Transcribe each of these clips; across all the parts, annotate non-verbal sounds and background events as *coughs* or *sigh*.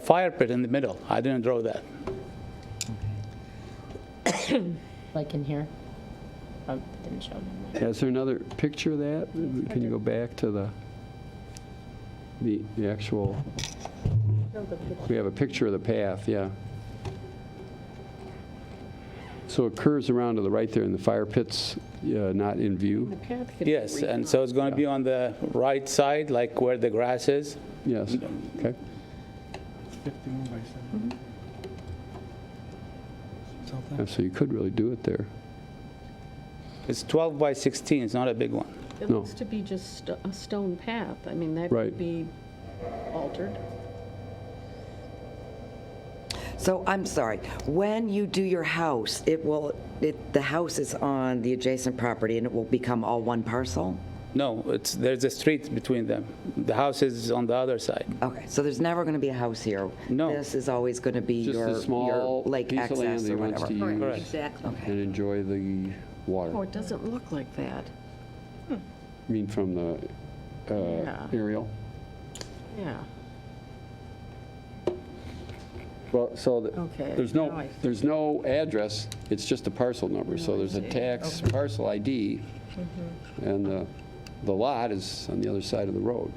The fire pit in the middle, I didn't draw that. like in here. Oh, didn't show them. that. Is there another picture of that? Can you go back to the, the the actual, we have a picture of the path, yeah. So it curves around to the right there, and the fire pit's uh, not in view? Yes, and so it's going to be on the right side, like where the grass is. Yes, okay. 51 by 7. Yeah, So you could really do it there. It's 12 by 16, it's not a big one. It No. looks to be just st- a stone path. I mean, that Right. could be altered. So I'm sorry, when you do your house, it will, it, the house is on the adjacent property and it will become all one parcel? No, it's, there's a street between them. The house is on the other side. Okay, so there's never going to be a house here? No. This is always going to be Just your, a your small lake piece of land access that he or wants to whatever? use Correct. Exactly. and enjoy the water. Oh, it doesn't look like that. I mean, from the uh, Yeah. aerial. Yeah, Well, so the- Okay, there's now no, I- there's no address, it's just a parcel number. So there's a tax parcel ID, Mm-hmm. and the the lot is on the other side of the road.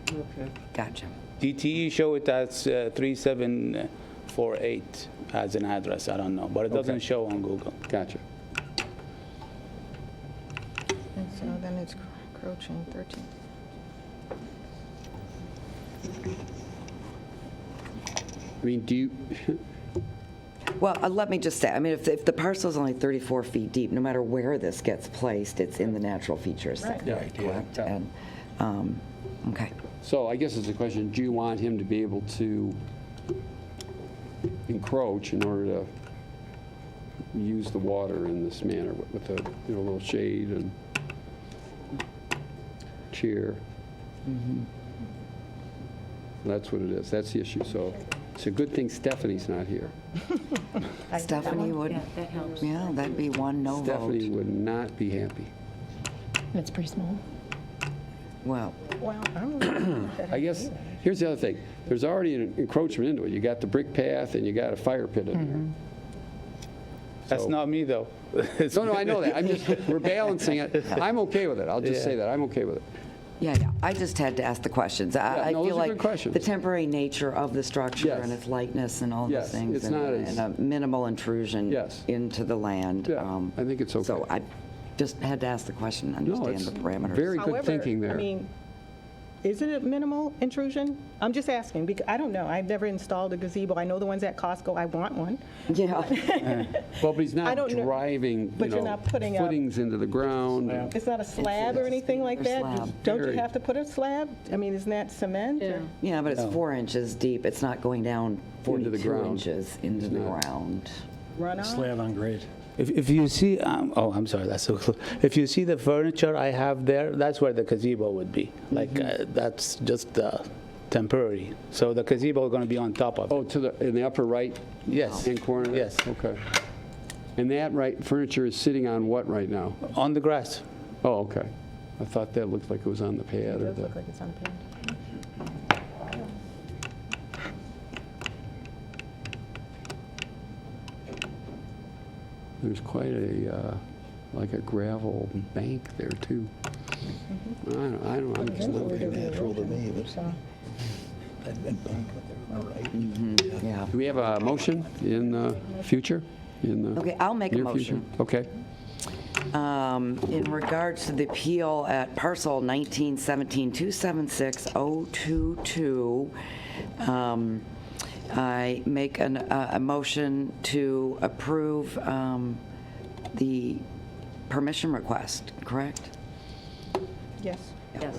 Gotcha. DTE E show it as uh, 3748 as an address, I don't know, but it doesn't show on Google. Gotcha. And so then it's encroaching 13. I mean, do you, Well, uh, let me just say, I mean, if, if the parcel's only 34 feet deep, no matter where this gets placed, it's in the natural features section, Right, yeah, correct? yeah. And, um, okay. so I guess it's a question, do you want him to be able to encroach in order to use the water in this manner with with a, you know, little shade and cheer? That's what it is, that's the issue. So it's a good thing Stephanie's not here. Stephanie would, That helps. yeah, that'd be one no Stephanie vote. would not be happy. That's pretty small. Well, Well, I'm *coughs* looking at that. I guess, here's the other thing, there's already an encroachment into it. You got the brick path and you got a fire pit in there. That's So- not me, though. *laughs* It's- No, no, I know that. I'm just, we're balancing *laughs* it. I'm okay with it. I'll just say that. I'm okay with it. Yeah, yeah, I just had to ask the questions. Yeah, I I no, those feel are good like questions. the temporary nature of the structure Yes. and its lightness and all those Yes, things. it's and- not as- And a minimal intrusion Yes. into the land. Yeah, um, I think it's okay. So I just had to ask the question, No, understand it's the parameters. very good thinking However, I there. mean, is it a minimal intrusion? I'm just asking, because I don't know. I've never installed a gazebo. I know the ones at Costco, I want one. Yeah, Well, but he's I not don't know- driving, you but you're know, not putting up- footings into the ground. and- It's not a slab or anything like that? slab. Just- Don't Very. you have to put a slab? I mean, isn't that cement? yeah. or- yeah, but it's four inches deep. It's not going down Into the 42 ground. inches into the not. ground. Runoff? Slab on grade. If, if you see, um, oh, I'm sorry, that's so close. If you see the furniture I have there, that's where the gazebo would be. Like, uh, that's just uh, temporary. So the gazebo is going to be on top of it. Oh, to the, in the upper right Yes, hand corner? Yes. Okay. And that right, furniture is sitting on what right now? on the grass. Oh, okay. I thought that looked like it was on the pad or It does the, look like it's on page. there's quite a, uh, like a gravel bank there too. I Mm-hmm. don't, I don't, I'm just not Natural to me, but Yeah. Do we have a motion in the future? In the Okay, I'll make a near future? motion. Okay. Um, In regards to the appeal at parcel 1917276022, um, I make an- a a motion to approve um, the permission request, correct? Yes. Yes.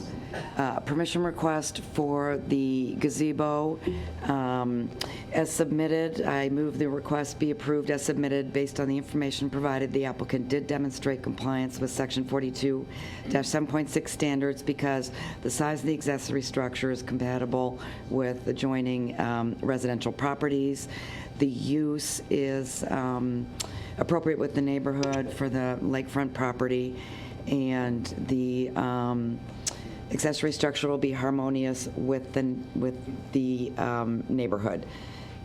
Uh, Permission request for the gazebo um, as submitted. I move the request be approved as submitted based on the information provided. The applicant did demonstrate compliance with Section 42-7.6 standards because the size of the accessory structure is compatible with adjoining um, residential properties. The use is um, appropriate with the neighborhood for the lakefront property, and the um, accessory structure will be harmonious with the, with the um, neighborhood.